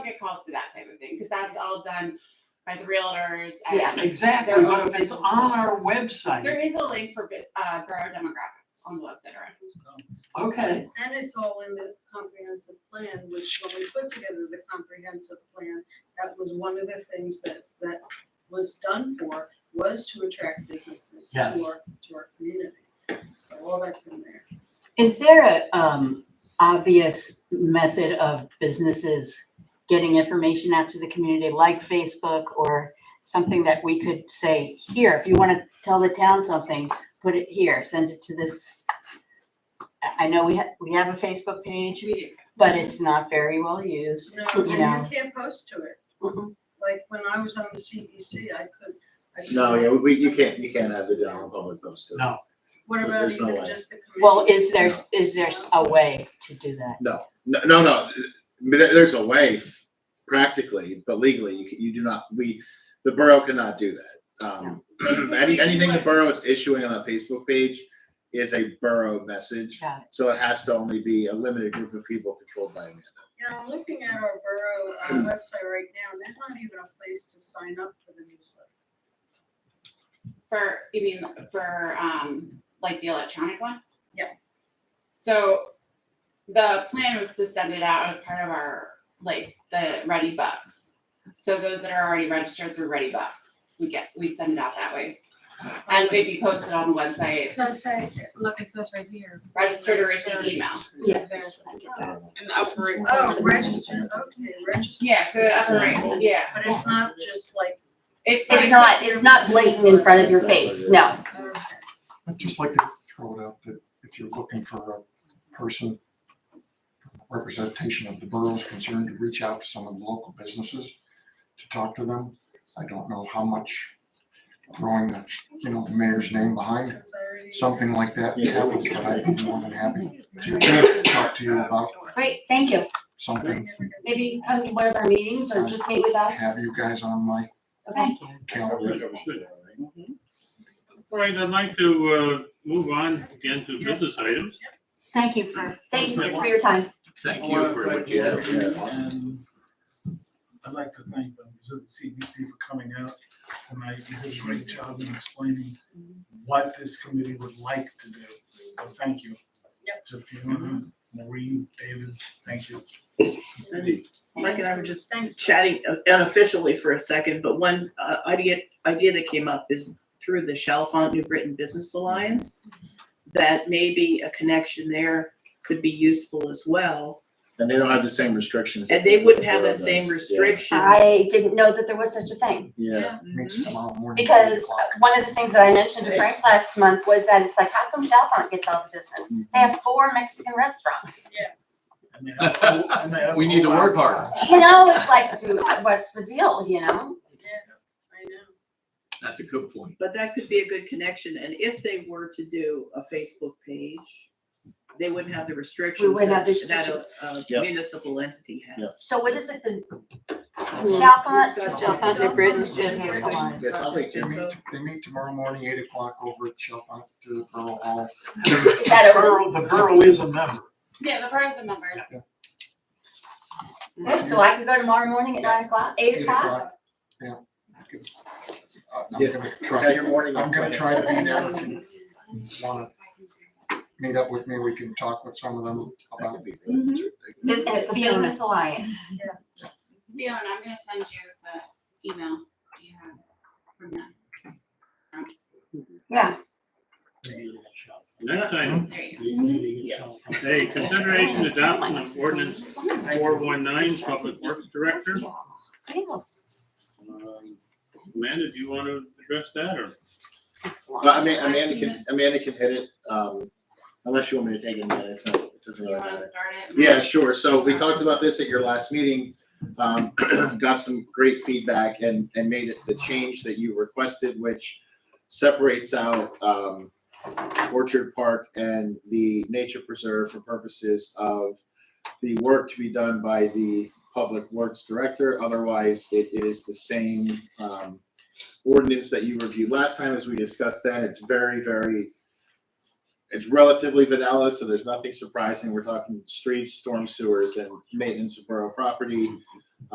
calls for that type of thing, because that's all done by the realtors Yeah. and Exactly, but if it's on our website, there is a link for, bi- uh, borough demographics on the website already. okay, And it's all in the comprehensive plan, which when we put together the comprehensive plan, that was one of the things that, that was done for, was to attract businesses to Yes. our, to our community. So all that's in there. Is there a, um, obvious method of businesses getting information out to the community like Facebook or something that we could say, here, if you want to tell the town something, put it here, send it to this. I- I know we have, we have a Facebook page, We do. but it's not very well used. No, You know. and you can't post to it. Mhm. Like when I was on the CBC, I could. I could- No, yeah, we, you can't, you can't have the general public post it. no. What about There's no even way. just the committee? Well, is there, is there a way to do that? No, no, no, no. There, there's a way f- practically, but legally, you, can- you do not, we, the borough cannot do that. Um, Basically, any, anything the what- borough is issuing on a Facebook page is a borough message. Got So it has to only be a limited group of people controlled by a man. You know, I'm looking at our borough uh, website right now, and there's not even a place to sign up for the newsletter. For, you mean, for, um, like the electronic one? Yeah. So the plan was to send it out as part of our, like, the Ready Bucks. So those that are already registered through Ready Bucks, we get, we'd send it out that way. And they'd be posted on the website, So I say, Look, it says right here. registered or received email. Yeah. And the upper. oh, register, okay, register. Yeah, so, that's right, yeah. But it's not just like. like- It's not, it's not blatant in front of your face, no. oh, okay. I'd just like to throw it out that if you're looking for a person, representation of the borough's concerned, to reach out to some of the local businesses to talk to them. I don't know how much throwing the, you know, the mayor's name behind It's already- something like that happens, but I'd be more than happy to talk to you about Great, thank you. something. Maybe come to one of our meetings or just meet with us. Have you guys on my it. Okay. Thank you. calendar. All right, I'd like to uh, move on again to business items. Thank you for. Thank you for your time. Thank I wanna thank Yeah. and I'd like to thank the CBC for coming out tonight. You did a great job in explaining what this committee would like to do. So thank you. Yep. To Fiona, Maureen, David, thank you. Mike and I were just Thanks. chatting unofficially for a second, but one uh, idea idea that came up is through the Chalfont New Britain Business Alliance, that maybe a connection there could be useful as well, And they don't have the same restrictions. and they wouldn't have that same restriction. I didn't know that there was such a thing. Yeah. Meets tomorrow morning. at eight Because o'clock. one of the things that I mentioned to Frank last month was that it's like, how come Chalfont gets all the business? They have four Mexican restaurants. And they have a whole- and they have a We need to whole work lot of- harder. You know, it's like, dude, what's the deal, you know? I know. That's a good point. But that could be a good connection, and if they were to do a Facebook page, they wouldn't have the restrictions wouldn't that, have the that a- a Yep. municipal entity has. So what is it, the Who's Chalfont? got Chalfont New Britain Business Alliance. Yes, I'll take They Jim. meet, they meet tomorrow morning, eight o'clock over at Chalfont, uh, Borough Hall. Is that over? Borough, the borough is a member. Yeah, the borough's a member. Good, so I can go tomorrow morning at nine o'clock, eight Eight o'clock? o'clock, yeah. Uh, I'm Yeah. gonna Have try, your morning. I'm gonna try to be there if you wanna meet up with me, we can talk with some of them That about. could be really interesting. Bus- It's the Business Alliance. Fiona, I'm gonna send you the email you have from them. Yeah, Next item, There you go. hey, consideration adoption of ordinance four one nine, Public Works Director. cool. Um, Amanda, do you want to address that or? Well, I mean, Amanda can, Amanda can hit it, um, unless you want me to take it, Amanda, it's not, it doesn't You really wanna matter. start it? Yeah, sure. So we talked about this at your last meeting. Um, got some great feedback and, and made it the change that you requested, which separates out, um, Orchard Park and the nature preserve for purposes of the work to be done by the Public Works Director. Otherwise, it is the same, um, ordinance that you reviewed last time as we discussed that. It's very, very it's relatively vanilla, so there's nothing surprising. We're talking streets, storm sewers, and maintenance of borough property.